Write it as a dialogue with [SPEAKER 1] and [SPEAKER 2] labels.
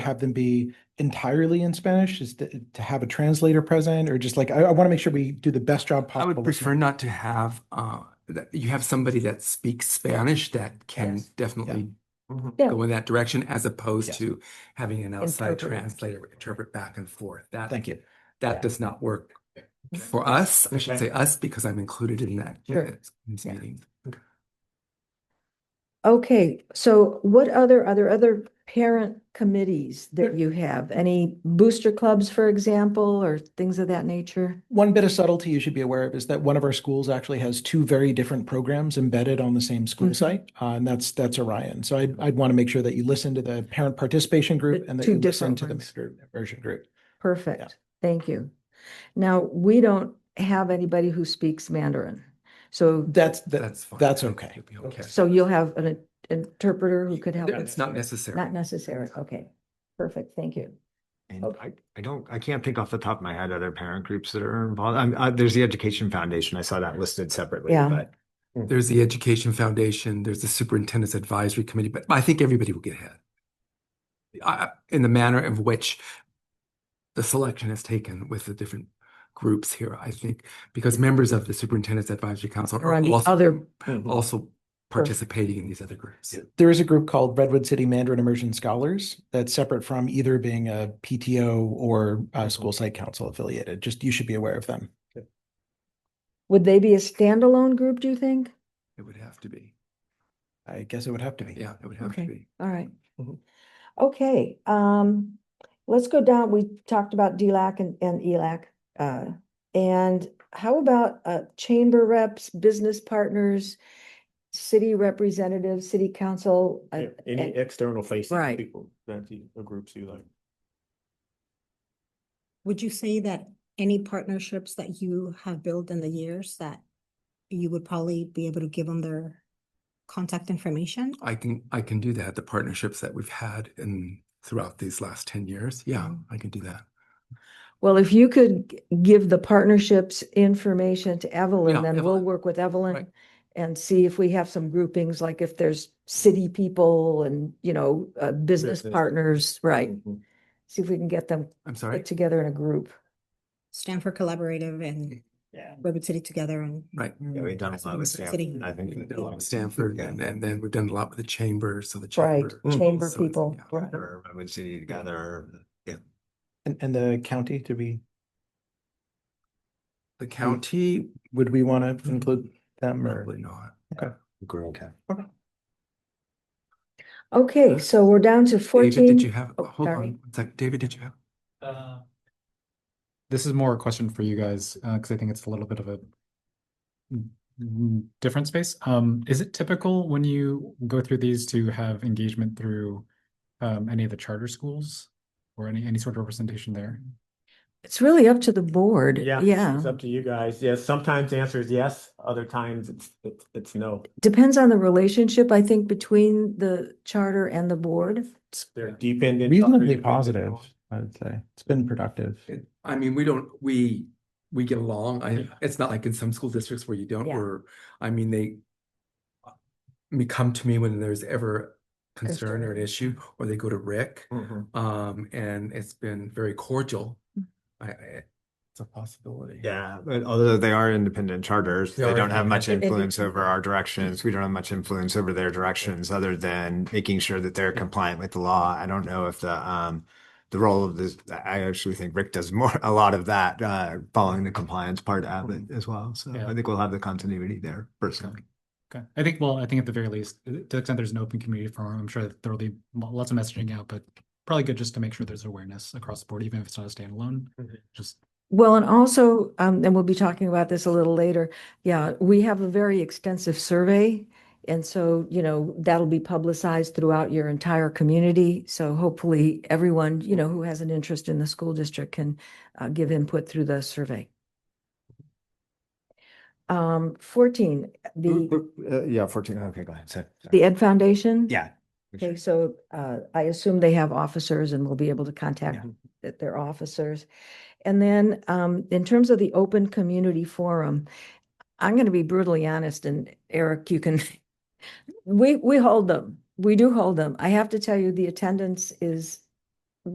[SPEAKER 1] have them be entirely in Spanish? Is to, to have a translator present or just like, I, I want to make sure we do the best job
[SPEAKER 2] I
[SPEAKER 1] possible.
[SPEAKER 2] would prefer not to have uh that you have somebody that speaks Spanish that can
[SPEAKER 1] Yes. Mm-hmm.
[SPEAKER 2] definitely
[SPEAKER 3] Mhm.
[SPEAKER 4] Yeah.
[SPEAKER 2] go in that direction as opposed
[SPEAKER 1] Yes.
[SPEAKER 2] to having an outside
[SPEAKER 4] Interpreter.
[SPEAKER 2] translator interpret back and forth. That
[SPEAKER 1] Thank you.
[SPEAKER 2] that does not work for us. I should
[SPEAKER 3] Okay.
[SPEAKER 2] say us because I'm included in that
[SPEAKER 4] Mm-hmm. Sure.
[SPEAKER 2] uh, this
[SPEAKER 4] Yeah.
[SPEAKER 2] meeting.
[SPEAKER 4] Okay, so what other, are there other parent committees that you have? Any booster clubs, for example, or things of that nature?
[SPEAKER 1] One bit of subtlety you should be aware of is that one of our schools actually has two very different programs embedded on the same school
[SPEAKER 4] Mhm.
[SPEAKER 1] site, uh, and that's that's Orion. So I'd, I'd want to make sure that you listen to the parent participation group
[SPEAKER 4] The
[SPEAKER 1] and that
[SPEAKER 4] two
[SPEAKER 1] you listen
[SPEAKER 4] different
[SPEAKER 1] to the
[SPEAKER 4] ones.
[SPEAKER 1] master immersion group.
[SPEAKER 4] Perfect, thank you. Now, we don't have anybody who speaks Mandarin. So,
[SPEAKER 1] That's that,
[SPEAKER 2] That's fine.
[SPEAKER 1] that's okay.
[SPEAKER 2] It'll be okay.
[SPEAKER 4] so you'll have an in- interpreter who could help?
[SPEAKER 2] It's not necessary.
[SPEAKER 4] Not necessary, okay. Perfect, thank you.
[SPEAKER 3] And
[SPEAKER 4] Okay.
[SPEAKER 3] I, I don't, I can't think off the top of my head other parent groups that are involved. I'm, I, there's the Education Foundation. I saw that listed separately,
[SPEAKER 4] Yeah.
[SPEAKER 3] but
[SPEAKER 2] There's the Education Foundation, there's the Superintendent's Advisory Committee, but I think everybody will get ahead. I, in the manner of which the selection is taken with the different groups here, I think, because members of the Superintendent's Advisory Council
[SPEAKER 4] Or
[SPEAKER 2] are
[SPEAKER 4] on the
[SPEAKER 2] also,
[SPEAKER 4] other,
[SPEAKER 2] also participating in these other groups.
[SPEAKER 1] mm-hmm. There is a group called Redwood City Mandarin Immersion Scholars that's separate from either being a PTO or a school site council affiliated. Just you should be aware of them.
[SPEAKER 4] would they be a standalone group, do you think?
[SPEAKER 2] It would have to be.
[SPEAKER 1] I guess it would have to be.
[SPEAKER 2] Yeah, it would have
[SPEAKER 4] Okay.
[SPEAKER 2] to be.
[SPEAKER 4] All right.
[SPEAKER 2] Mm-hmm.
[SPEAKER 1] Mhm.
[SPEAKER 4] Okay, um, let's go down. We talked about DLAC and, and ELAC. Uh, and how about, uh, chamber reps, business partners, city representatives, city council? uh,
[SPEAKER 5] Yeah, Any
[SPEAKER 4] and-
[SPEAKER 5] external facing
[SPEAKER 4] Right.
[SPEAKER 5] people that you, or groups you like.
[SPEAKER 6] Would you say that any partnerships that you have built in the years that you would probably be able to give them their contact information?
[SPEAKER 2] I can, I can do that. The partnerships that we've had in throughout these last ten years. Yeah,
[SPEAKER 6] Mhm.
[SPEAKER 4] Mm-hmm.
[SPEAKER 2] I can do that.
[SPEAKER 4] Well, if you could g- give the partnerships information to Evelyn,
[SPEAKER 2] Yeah,
[SPEAKER 4] then we'll
[SPEAKER 2] Evelyn.
[SPEAKER 4] work with
[SPEAKER 2] Right.
[SPEAKER 4] Evelyn and see if we have some groupings, like if there's city people and, you know, uh, business
[SPEAKER 5] Business.
[SPEAKER 4] partners, right?
[SPEAKER 1] Mm-hmm.
[SPEAKER 5] Mhm.
[SPEAKER 2] Mm-hmm.
[SPEAKER 4] See if we can get them
[SPEAKER 2] I'm
[SPEAKER 4] put
[SPEAKER 2] sorry.
[SPEAKER 4] together in a group.
[SPEAKER 6] Stanford Collaborative and Redwood City Together and
[SPEAKER 2] Right.
[SPEAKER 3] yeah, we've done a lot with
[SPEAKER 6] City.
[SPEAKER 3] Stanford. I
[SPEAKER 2] We've
[SPEAKER 3] think.
[SPEAKER 2] done a lot with Stanford and, and then we've done a lot with the chamber, so the
[SPEAKER 4] Right,
[SPEAKER 2] chamber.
[SPEAKER 4] chamber
[SPEAKER 2] so it's-
[SPEAKER 4] people.
[SPEAKER 2] yeah.
[SPEAKER 4] right.
[SPEAKER 3] Or Redwood City together. Yeah.
[SPEAKER 1] And, and the county, do we,
[SPEAKER 2] The county,
[SPEAKER 1] would we
[SPEAKER 5] Mm-hmm.
[SPEAKER 1] want to
[SPEAKER 4] Mm-hmm.
[SPEAKER 1] include them or?
[SPEAKER 2] probably not.
[SPEAKER 3] Group.
[SPEAKER 4] Okay, so we're down to
[SPEAKER 2] David, did you
[SPEAKER 4] fourteen.
[SPEAKER 2] have,
[SPEAKER 4] oh,
[SPEAKER 2] hold
[SPEAKER 4] sorry.
[SPEAKER 2] on, it's like, David, did you have?
[SPEAKER 7] Uh, This is more a question for you guys, uh, because I think it's a little bit of a mm, mm, different space. Um, is it typical when you go through these to have engagement through um, any of the charter schools or any any sort of representation there?
[SPEAKER 4] It's really up to the board. Yeah,
[SPEAKER 5] It's up to you guys. Yes, sometimes the answer is yes, other times it's, it's, it's no.
[SPEAKER 4] depends on the relationship, I think, between the charter and the board.
[SPEAKER 5] They're dependent.
[SPEAKER 1] Reasonably positive, I would say. It's been productive.
[SPEAKER 2] It- I mean, we don't, we, we get along. I, it's not like in some school districts where you don't,
[SPEAKER 4] Yeah.
[SPEAKER 2] or, I mean, they I mean, come to me when there's ever concern or an
[SPEAKER 4] Concern. Mm.
[SPEAKER 2] issue, or they go to Rick,
[SPEAKER 5] Mhm.
[SPEAKER 2] um, and it's been very cordial. I, I- it's a possibility.
[SPEAKER 3] Yeah, but although they are independent charters,
[SPEAKER 2] They
[SPEAKER 3] they
[SPEAKER 2] are
[SPEAKER 3] don't have much
[SPEAKER 4] independent.
[SPEAKER 3] influence over our directions. We don't have much influence over their directions other than making sure that they're compliant with the law. I don't know if the um the role of this, I actually think Rick does more a lot of that, uh, following the compliance part of it as well. So
[SPEAKER 7] Yeah.
[SPEAKER 3] I think we'll have the continuity there personally.
[SPEAKER 7] Okay, I think well, I think at the very least, uh, to the extent there's an open community forum, I'm sure that there'll be mo- lots of messaging out, but probably good just to make sure there's awareness across the board, even if it's not a standalone.
[SPEAKER 5] Mhm.
[SPEAKER 7] Just
[SPEAKER 4] Well, and also, um, and we'll be talking about this a little later. Yeah, we have a very extensive survey. And so, you know, that'll be publicized throughout your entire community. So hopefully everyone, you know, who has an interest in the school district can uh, give input through the survey. Um, fourteen, the,
[SPEAKER 3] uh, yeah, fourteen, okay, go ahead, sorry.
[SPEAKER 4] the Ed Foundation?
[SPEAKER 3] Yeah.
[SPEAKER 4] Okay, so uh, I assume they have officers and will be able to contact th- their officers. And then um, in terms of the open community forum, I'm going to be brutally honest, and Eric, you can, we, we hold them. We do hold them. I have to tell you, the attendance is